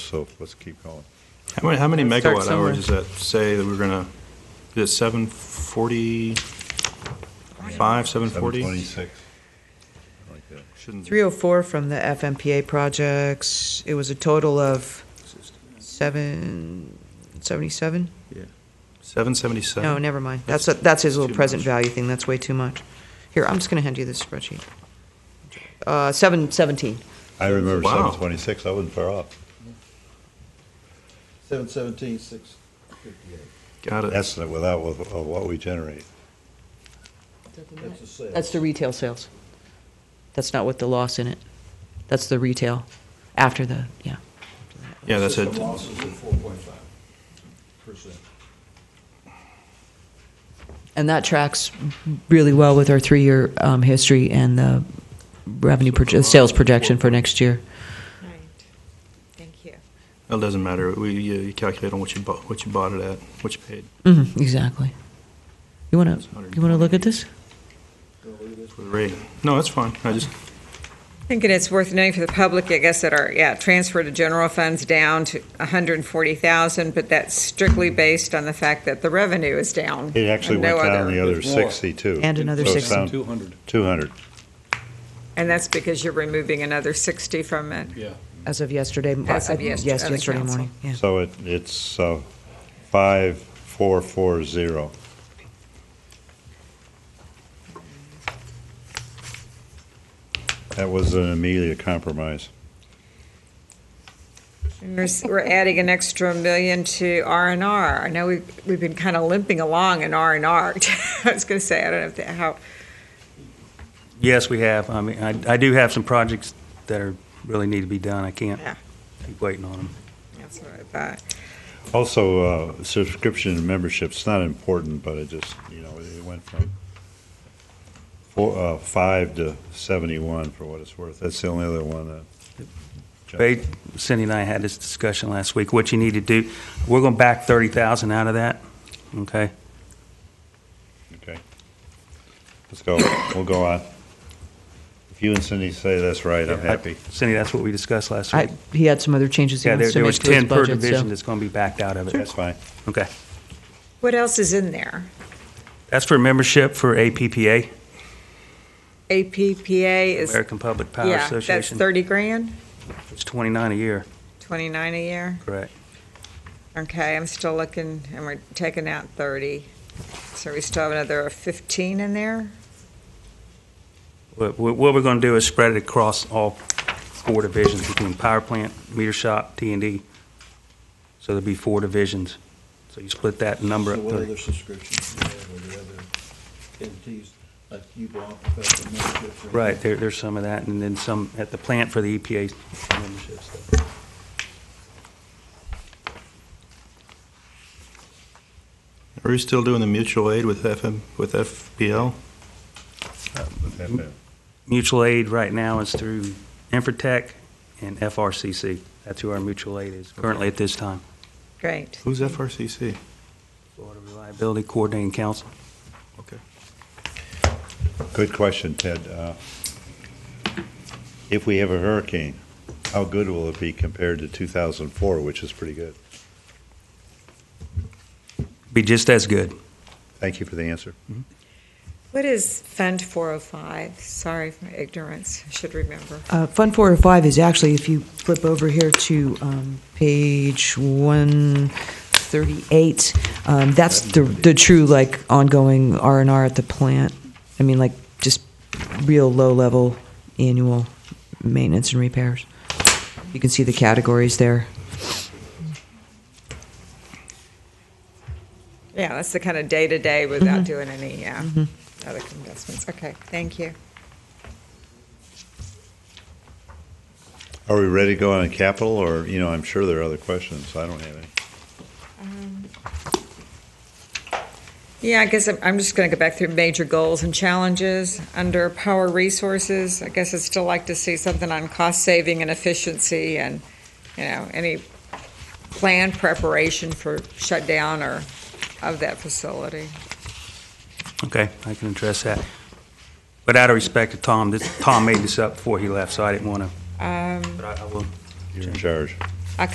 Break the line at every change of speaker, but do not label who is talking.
so let's keep going.
How many, how many
Let's start
megawatt
somewhere.
hours does that say that we're gonna, is it seven forty-five, seven forty?
726. Like that.
Shouldn't,
304 from the FMPA projects, it was a total of seven, 77?
seven seventy-seven?
No, never mind. That's, a- that's his little
Too
present
much.
value thing, that's way too much. Here, I'm just going to hand you this spreadsheet. Uh, 717.
I remember
Wow.
726, I wasn't far off.
Seven seventeen, six fifty-eight.
Got it.
That's without with- of what we generate.
That's the sale.
That's the retail sales. That's not with the loss in it. That's the retail after the, yeah.
Yeah, that's it.
System losses of four point five percent.
And that tracks really well with our three-year um, history and the revenue, proje- sales projection for next year.
All right, thank you.
That doesn't matter. We, you you calculate on what you bought, what you bought it at, what you paid
Mhm, Exactly. You want to, you want to look at this?
for the rate. No, that's fine. I just,
I think it is worth noting for the public, I guess, that our, yeah, transfer to general funds down to 140,000, but that's strictly based on the fact that the revenue is down.
It actually
and no
went down
other.
the other
There's more.
62.
And another
So it
60.
sound-
Two hundred.
200.
And that's because you're removing another 60 from it.
As of yesterday. m-
As of
uh,
yes-
Yes,
other
yesterday
council.
morning, yeah.
So it, it's uh, 5440. That was an Amelia compromise.
And We're s- we're adding an extra million to R and R. I know we've, we've been kind of limping along in R and R. I was going to say, I don't know if that, how,
Yes, we have. I mean, I, I do have some projects that are, really need to be done. I can't
Yeah.
keep waiting on them.
that's what I thought.
Also, uh, subscription and membership's not important, but it just, you know, it went from four, uh, five to 71 for what it's worth. That's the only other one that.
Ba- Cindy and I had this discussion last week, what you need to do. We're going to back 30,000 out of that, okay?
Okay. Let's go, we'll go on. If you and Cindy say that's right, I'm happy.
Cindy, that's what we discussed last
I,
week.
he had some other changes he
Yeah, there
wants to
there
make to his
was 10 per
budget,
division
so.
that's going to be backed out of it.
That's fine.
Okay.
What else is in there?
That's for membership for APPA,
APPA is,
American Public Power
yeah, that's
Association.
30 grand,
It's 29 a year,
29 a year.
correct.
Okay, I'm still looking, and we're taking out 30. So we still have another 15 in there?
What, what what we're going to do is spread it across all four divisions between power plant, meter shop, T and D. So there'll be four divisions. So you split that number
So
up.
what
thirty.
other subscriptions do you have, or the other entities, like you bought, professional membership? or anything?
Right, there, there's some of that, and then some at the plant for the EPA membership stuff.
are we still doing the mutual aid with FM, with FPL?
Mutual aid right now is through Infratech and FRCC. That's who our mutual aid is currently at this time.
Great.
Who's FRCC?
Florida Reliability Coordinating Council.
Okay.
Good question, Ted. Uh, If we have a hurricane, how good will it be compared to 2004, which is pretty good?
Be just as good.
Thank you for the answer.
What is Fund 405? Sorry for my ignorance, I should remember.
Uh, Fund 405 is actually, if you flip over here to um, page 138, um, that's the, the true, like, ongoing R and R at the plant. I mean, like, just real low-level annual maintenance and repairs. You can see the categories there.
Yeah, that's the kind of day-to-day without doing any, yeah, other investments. Okay, thank you.
Are we ready to go on capital, or, you know, I'm sure there are other questions. I don't have any.
Yeah, I guess I'm- I'm just going to go back through major goals and challenges. Under power resources, I guess I'd still like to see something on cost saving and efficiency and, you know, any planned preparation for shutdown or of that facility.
Okay, I can address that. But out of respect to Tom, this, Tom made this up before he left, so I didn't want to,
Um,
but I I will
You're in charge.